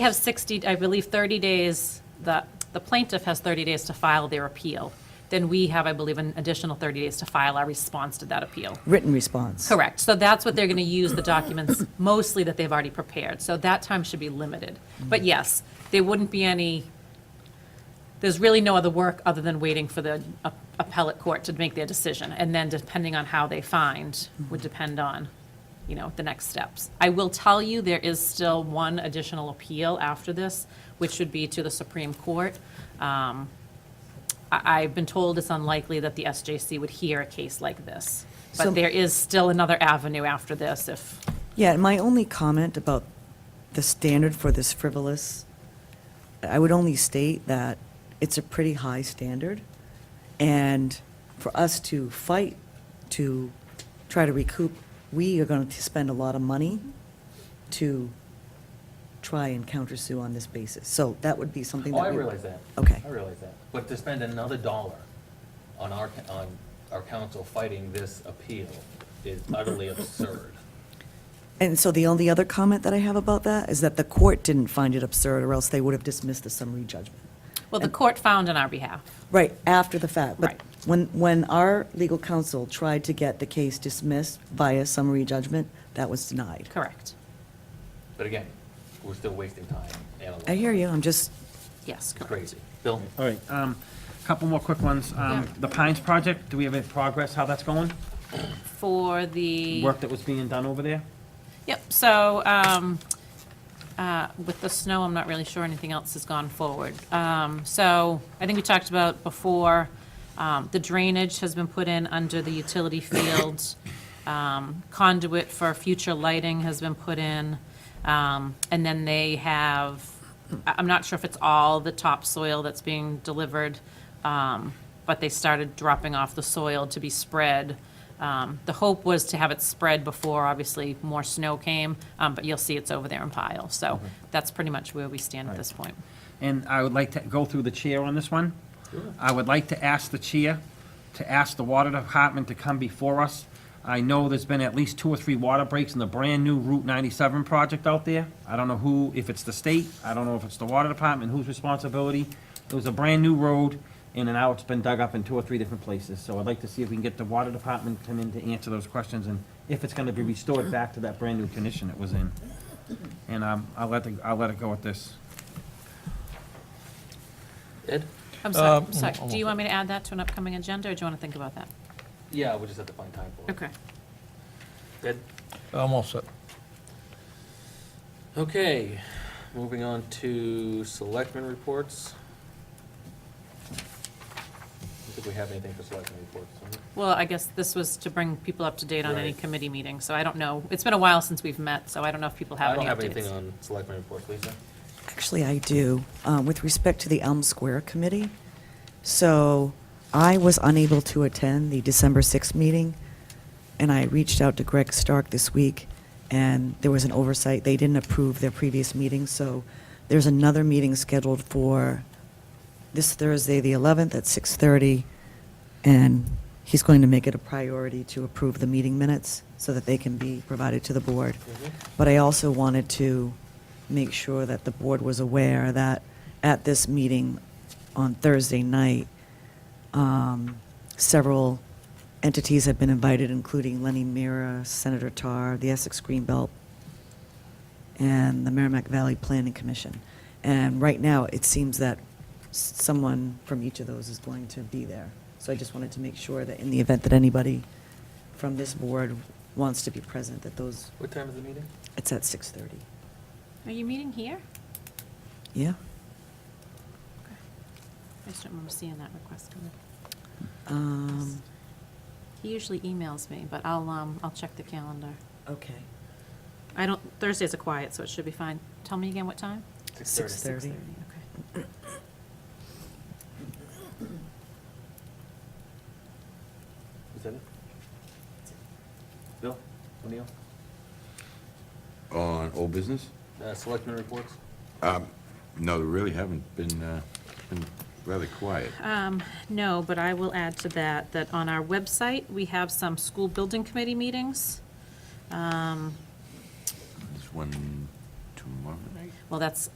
We have 60, I believe 30 days, the the plaintiff has 30 days to file their appeal. Then we have, I believe, an additional 30 days to file our response to that appeal. Written response. Correct. So that's what they're going to use, the documents mostly that they've already prepared. So that time should be limited. But yes, there wouldn't be any, there's really no other work other than waiting for the a- appellate court to make their decision. And then depending on how they find would depend on, you know, the next steps. I will tell you, there is still one additional appeal after this, which would be to the Supreme Court. Um, I- I've been told it's unlikely that the SJC would hear a case like this, So- but there is still another avenue after this if, Yeah, and my only comment about the standard for this frivolous, I would only state that it's a pretty high standard. And for us to fight to try to recoup, we are going to spend a lot of money to try and countersue on this basis. So that would be something Oh, that we. I realize that. Okay. I realize that. But to spend another dollar on our, on our council fighting this appeal is utterly absurd. And so the only other comment that I have about that is that the court didn't find it absurd, or else they would have dismissed the summary judgment. well, the court found on our behalf. Right, after the fact. Right. But when, when our legal counsel tried to get the case dismissed via summary judgment, that was denied. Correct. But again, we're still wasting time. analyzing. I hear you, I'm just, Yes, It's correct. crazy. Bill? All right, um, couple more quick ones. Um, Yeah. the Pines project, do we have any progress, how that's going? For the. Work that was being done over there? Yep, so um, uh, with the snow, I'm not really sure anything else has gone forward. Um, So I think we talked about before, um, the drainage has been put in under the utility field. Um, Conduit for future lighting has been put in. Um, And then they have, I- I'm not sure if it's all the topsoil that's being delivered, um, but they started dropping off the soil to be spread. Um, The hope was to have it spread before, obviously, more snow came, um, but you'll see it's over there in pile. So that's pretty much where we stand at this point. And I would like to go through the chair on this one. I would like to ask the chair to ask the water department to come before us. I know there's been at least two or three water breaks in the brand-new Route 97 project out there. I don't know who, if it's the state, I don't know if it's the water department, whose responsibility. It was a brand-new road, and now it's been dug up in two or three different places. So I'd like to see if we can get the water department to come in to answer those questions, and if it's gonna be restored back to that brand-new condition it was in. And um, I'll let, the- I'll let it go at this. Ed? I'm sorry, I'm sorry. Do you want me to add that to an upcoming agenda, or do you want to think about that? Yeah, we just have to find time for it. Okay. Ed? I'm all set. Okay, moving on to selectmen reports. I don't think we have anything for selectmen reports. do we? Well, I guess this was to bring people up to date on any Right. committee meeting, so I don't know. It's been a while since we've met, so I don't know if people I have don't any have anything updates. on selectmen reports, Lisa. actually, I do, uh, with respect to the Elm Square Committee. So I was unable to attend the December 6th meeting, and I reached out to Greg Stark this week, and there was an oversight. They didn't approve their previous meeting, so there's another meeting scheduled for this Thursday, the 11th, at 6:30, and he's going to make it a priority to approve the meeting minutes so that they can be provided to the board. Mhm. But I also wanted to make sure that the board was aware that at this meeting on Thursday night, um, several entities have been invited, including Lenny Mira, Senator Tarr, the Essex Greenbelt, and the Merrimack Valley Planning Commission. And right now, it seems that s- someone from each of those is going to be there. So I just wanted to make sure that in the event that anybody from this board wants to be present, that those, What time is the meeting? it's at 6:30. Are you meeting here? Yeah? Okay. I just don't remember seeing that request come in. Um, He usually emails me, but I'll, um, I'll check the calendar. Okay. I don't, Thursdays are quiet, so it should be fine. Tell me again what time? 6:30. 6:30. 6:30, okay. Is that it? Bill, O'Neill, On old business? uh, selectmen reports? Um, No, they really haven't been, uh, been rather quiet. Um, No, but I will add to that, that on our website, we have some school building committee meetings. Um, There's one tomorrow night? Well, that's